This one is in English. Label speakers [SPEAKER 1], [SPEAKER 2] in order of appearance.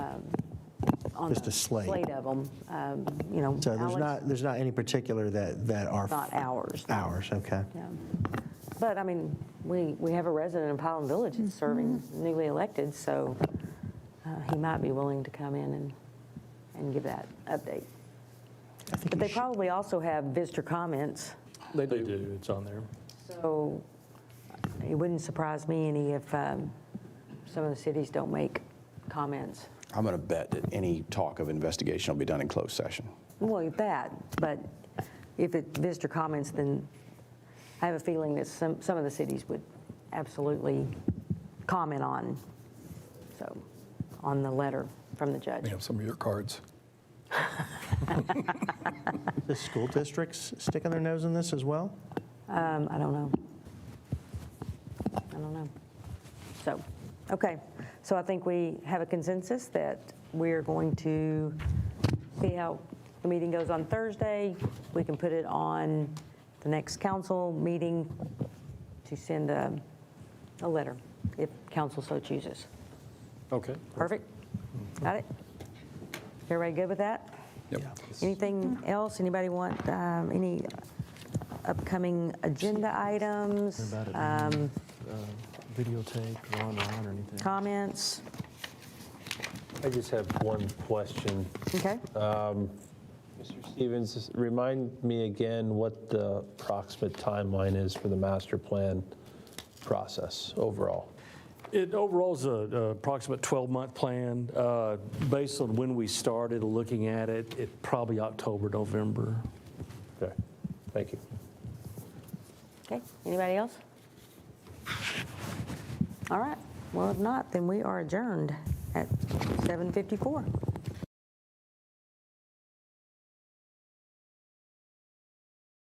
[SPEAKER 1] on
[SPEAKER 2] Just
[SPEAKER 1] the
[SPEAKER 2] a slate.
[SPEAKER 1] of them, um, you know.
[SPEAKER 2] So there's
[SPEAKER 1] Alex-
[SPEAKER 2] not, there's not any particular that, that are.
[SPEAKER 1] Not ours, no.
[SPEAKER 2] Ours, okay.
[SPEAKER 1] Yeah. But I mean, we, we have a resident in Pollen Village that's serving newly elected, so uh, he might be willing to come in and, and give that update. But they probably also have visitor comments,
[SPEAKER 3] They do, it's on there.
[SPEAKER 1] so it wouldn't surprise me any if um, some of the cities don't make comments.
[SPEAKER 4] I'm going to bet that any talk of investigation will be done in closed session.
[SPEAKER 1] Well, that, but if it visitor comments, then I have a feeling that some, some of the cities would absolutely comment on, so, on the letter from the judge.
[SPEAKER 5] We have some of your cards.
[SPEAKER 2] The school districts sticking their nose in this as well?
[SPEAKER 1] Um, I don't know. I don't know. So, okay, so I think we have a consensus that we're going to see how the meeting goes on Thursday. We can put it on the next council meeting to send a, a letter if council so chooses.
[SPEAKER 3] Okay.
[SPEAKER 1] Perfect? Got it? Everybody good with that? Anything else? Anybody want um, any upcoming agenda items,
[SPEAKER 6] About it
[SPEAKER 1] um,
[SPEAKER 6] videotaped or online or anything.
[SPEAKER 1] comments?
[SPEAKER 7] I just have one question.
[SPEAKER 1] Okay.
[SPEAKER 7] Mr. Stevens, remind me again what the approximate timeline is for the master plan process overall.
[SPEAKER 3] It overall is a- a approximate 12-month plan. Uh, Based on when we started looking at it, it probably October, November.
[SPEAKER 7] Okay, thank you.
[SPEAKER 1] Okay, anybody else? All right, well, if not, then we are adjourned at 7:54.